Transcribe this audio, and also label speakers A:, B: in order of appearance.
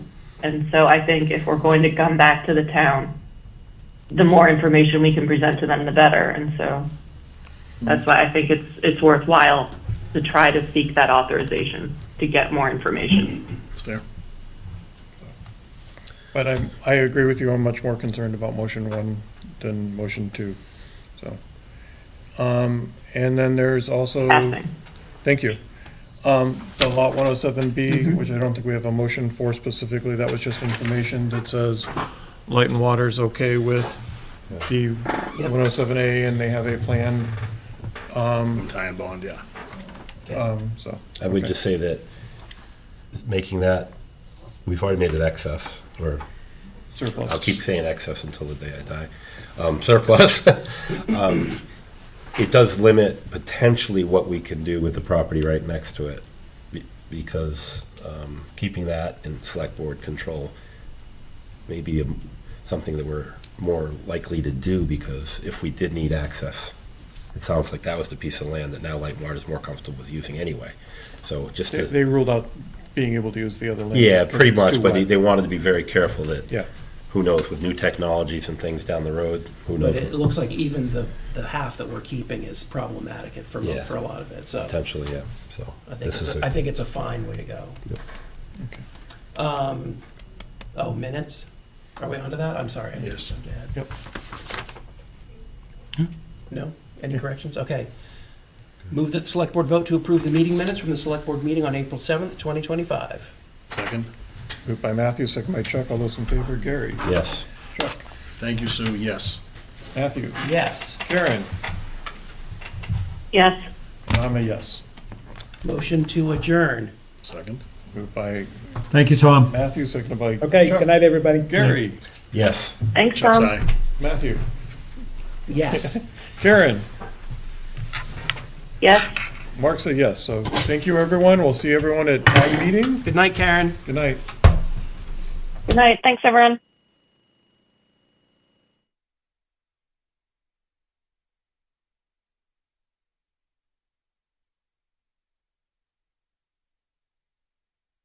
A: And so I think if we're going to come back to the town, the more information we can present to them, the better. And so that's why I think it's, it's worthwhile to try to seek that authorization to get more information.
B: It's fair. But I, I agree with you, I'm much more concerned about motion one than motion two, so. Um, and then there's also,
A: Passing.
B: thank you. Um, the lot one oh seven B, which I don't think we have a motion for specifically, that was just information that says light and water is okay with the one oh seven A and they have a plan,
C: Tie and bond, yeah.
B: um, so.
D: I would
B: okay.
D: just say that making that, we've already made it excess, or I'll
B: Surplus.
D: keep saying excess until the day I die, um, surplus. Um, It does limit potentially what we can do with the property right next to it, be- because um, keeping that in select board control may be a- something that we're more likely to do, because if we did need access, it sounds like that was the piece of land that now Light and Water is more comfortable with using anyway. So just
B: They,
D: to
B: they ruled out being able to use the other land.
D: yeah,
B: because
D: pretty
B: it's too
D: much, but they,
B: wide.
D: they wanted to be very careful that.
B: Yeah.
D: Who knows, with new technologies and things down the road, who
E: But
D: knows,
E: it looks like even the, the half that we're keeping is problematic for,
D: Yeah.
E: for a lot of it, so.
D: potentially, yeah, so.
E: I think,
D: this
E: it's
D: is
E: a,
D: a-
E: I think it's a fine way to go.
B: Okay.
E: Um, oh, minutes? Are we onto that? I'm sorry. I
C: Yes.
E: jumped ahead.
B: Yep.
E: Hmm? No? Any corrections? Okay. Move that the select board vote to approve the meeting minutes from the select board meeting on April seventh, twenty twenty-five.
C: Second.
B: Moved by Matthew, second by Chuck. All those in favor, Gary.
D: Yes.
B: Chuck.
C: Thank you, Sue, yes.
B: Matthew.
E: Yes.
B: Karen.
A: Yes,
B: and I'm a yes.
E: Motion to adjourn.
C: Second.
B: Moved by
F: Thank you, Tom.
B: Matthew, seconded by
G: Okay,
B: Chuck.
G: good night, everybody.
B: Gary.
D: Yes.
A: thanks,
C: Chuck's
A: Tom.
C: eye.
B: Matthew.
E: Yes.
B: Karen.
A: Yes.
B: Mark's a yes. So thank you, everyone. We'll see everyone at town meeting.
E: Good night, Karen.
B: Good night.
A: Good night. Thanks, everyone.